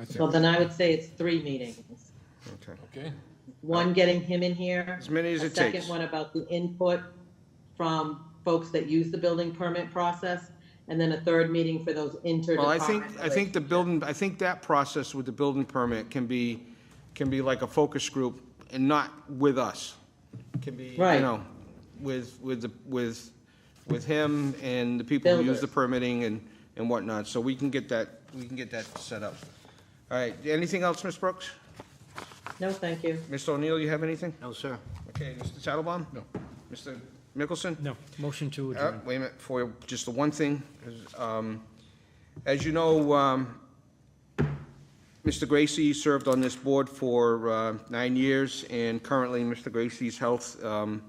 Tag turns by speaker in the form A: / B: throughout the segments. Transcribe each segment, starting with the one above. A: I think,
B: Well, then I would say it's three meetings.
A: okay.
C: Okay,
B: One, getting him in here.
A: As many as
B: a
A: it takes.
B: Second one about the input from folks that use the building permit process. And then a third meeting for those interdepartmental.
A: Well, I think, I think the building, I think that process with the building permit can be, can be like a focus group and not with us. Can be, you
B: Right.
A: know, with, with, the with, with him and the people who use the
B: Builders.
A: permitting and, and whatnot. So we can get that, we can get that set up. All right, anything else, Ms. Brooks?
B: No, thank you.
A: Mr. O'Neill, you have anything?
D: No, sir.
A: Okay, Mr. Tattelbaum? No. Mr. Mickelson?
E: No, motion to
A: Uh,
E: adjourn.
A: Wait a minute, for just the one thing, is, um, as you know, um, Mr. Gracie served on this board for uh, nine years, and currently, Mr. Gracie's health um,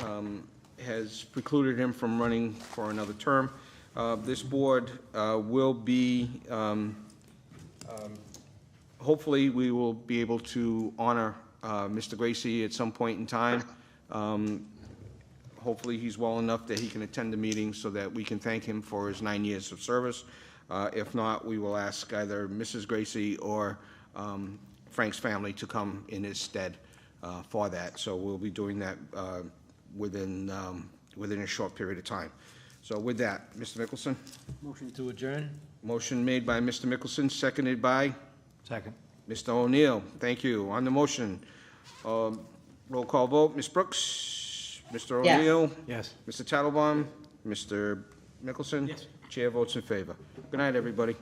A: um, has precluded him from running for another term. Uh, This board uh, will be, um, hopefully, we will be able to honor uh, Mr. Gracie at some point in time. Um, Hopefully, he's well enough that he can attend the meeting so that we can thank him for his nine years of service. Uh, If not, we will ask either Mrs. Gracie or um, Frank's family to come in his stead uh, for that. So we'll be doing that uh, within, um, within a short period of time. So with that, Mr. Mickelson,
D: Motion to adjourn?
A: motion made by Mr. Mickelson, seconded by
D: Second.
A: Mr. O'Neill. Thank you. On the motion, um, roll call vote, Ms. Brooks, Mr.
B: Yes.
A: O'Neill,
D: Yes.
A: Mr. Tattelbaum, Mr. Mickelson? Chair votes in favor. Good night, everybody.